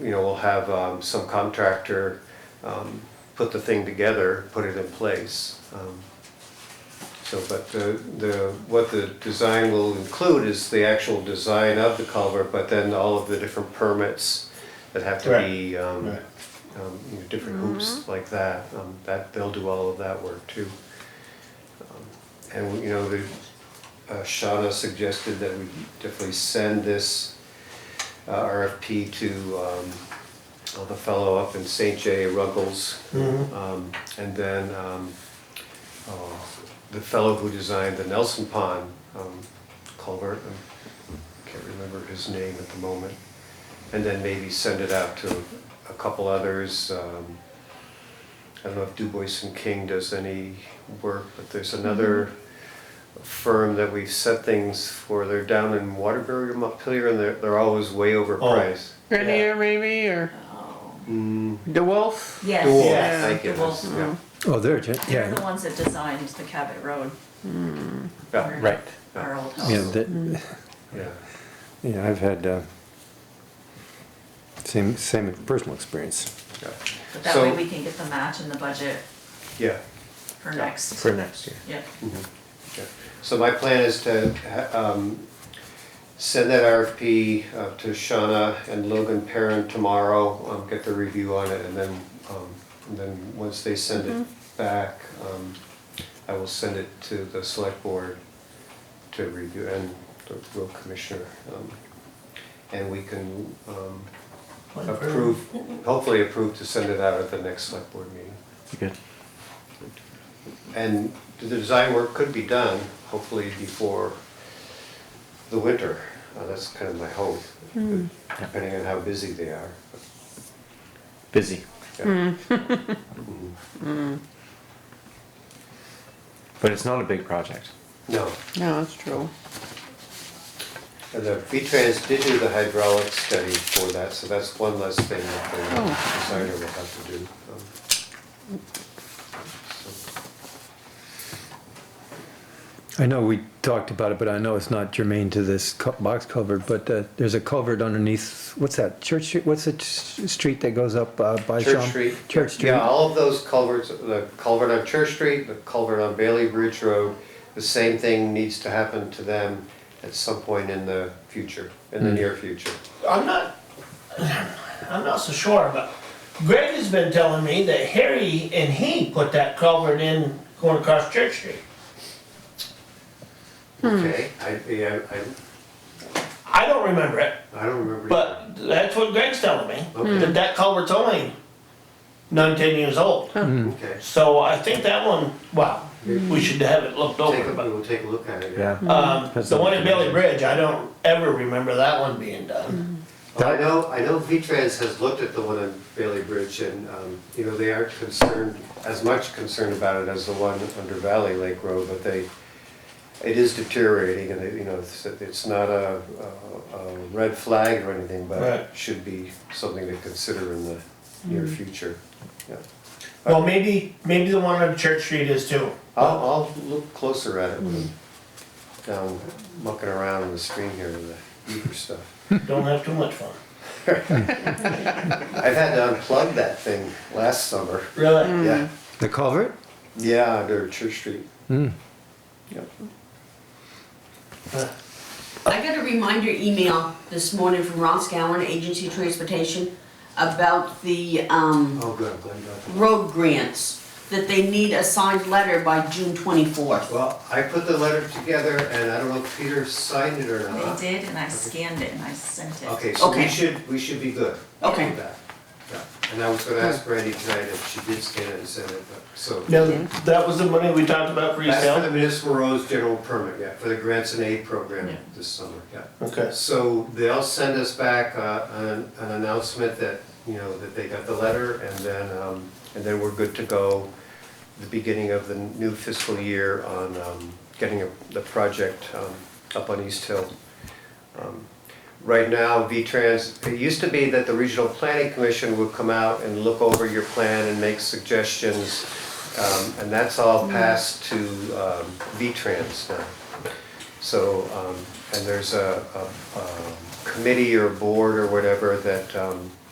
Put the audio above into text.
you know, we'll have um, some contractor um, put the thing together, put it in place. Um, So, but the, the, what the design will include is the actual design of the culvert, but then all of the different permits that have to be, um, Right. um, you know, different hoops like that, um, that, they'll do all of that work too. Um, And, you know, the, uh, Shauna suggested that we definitely send this uh, RFP to um, uh, the fellow up in St. J. Ruggles. Um, And then um, uh, the fellow who designed the Nelson Pond um, culvert, I can't remember his name at the moment. And then maybe send it out to a couple others. um, I don't know if Du Bois and King does any work, but there's another firm that we've set things for. They're down in Waterbury or Montpelier, and they're, they're always way overpriced. Grenier maybe, or Mm, DeWolf? Yes. Dewalt, Yeah. thank you, that's- Dewalt. yeah. Oh, there, it is, They're the yeah, ones that designed the Cabot Road, Yeah, right. our old Yeah, house. that, yeah. yeah, I've had, uh, same, same personal experience. yeah. But that So- way we can get the match in the budget Yeah, for next, next year. yeah. yeah. So my plan is to ha- um, send that RFP uh, to Shauna and Logan Perrin tomorrow, um, get the review on it, and then, um, and then once they send it back, um, I will send it to the select board to review and the road commissioner. um, And we can um, approve, hopefully approve to send it out at the next select board meeting. Good. And the design work could be done, hopefully before the winter. Uh, That's kind of my hope, depending on how busy they are. Busy. Yeah. But it's not a big project. No, No, that's true. and the V-Trans did do the hydraulic study for that, so that's one less thing that the designer will have to do. um, so. I know we talked about it, but I know it's not germane to this cu- box culvert, but uh, there's a culvert underneath, what's that, Church Street, what's the s- street that goes up uh, by Sham? Church Street. Church Street. Yeah, all of those culverts, the culvert on Church Street, the culvert on Bailey Bridge Road, the same thing needs to happen to them at some point in the future, in Hmm. the near future. I'm not, I'm not so sure, but Greg has been telling me that Harry and he put that culvert in going across Church Street. Okay, I, yeah, I, I don't remember it, I don't remember. but that's what Greg's telling me, Okay. that that culvert's only nine, ten years old. Okay, So I think that one, wow, we should have it looked Hmm. take over, a, but, we'll take a look at it. Yeah. um, That's the one not- at Bailey Bridge, I don't ever remember that one being Hmm. done. Well, I know, I know V-Trans has looked at the one on Bailey Bridge and, um, you know, they aren't concerned, as much concerned about it as the one under Valley Lake Road, but they, it is deteriorating and, they- you know, it's, it's not a, a- a red flag or anything, but it Right. should be something to consider in the near future. Yeah. Well, maybe, maybe the one on Church Street is too. I'll, I'll look closer at it when I'm down mucking around in the stream here with the beaver stuff. Don't have too much fun. I've had to unplug that thing last summer. Really? Yeah. The culvert? Yeah, under Church Street. Mm. Yep. I got a reminder email this morning from Ross Gowen, Agency of Transportation, about the, um, Oh, good, I'm glad you got that. road grants, that they need a signed letter by June twenty-fourth. Well, I put the letter together and I don't know if Peter signed it or They not. did, and I scanned it and I sent it. uh, Okay, so we Okay. should, we should be good. Okay. with that. Yeah. And I was gonna ask Brandy tonight if she did scan it and send it, but, so. Now, that was the money we talked about for That's for the yourself? municipal roads general permit, yeah, for the grants and aid program Yeah. this summer, yeah. Okay. So they'll send us back uh, an an announcement that, you know, that they got the letter and then, um, and then we're good to go the beginning of the new fiscal year on um, getting the project um, up on East Hill. Um, Right now, V-Trans, it used to be that the Regional Planning Commission would come out and look over your plan and make suggestions. um, And that's all passed to um, V-Trans now. So, um, and there's a, a, a committee or board or whatever that, um,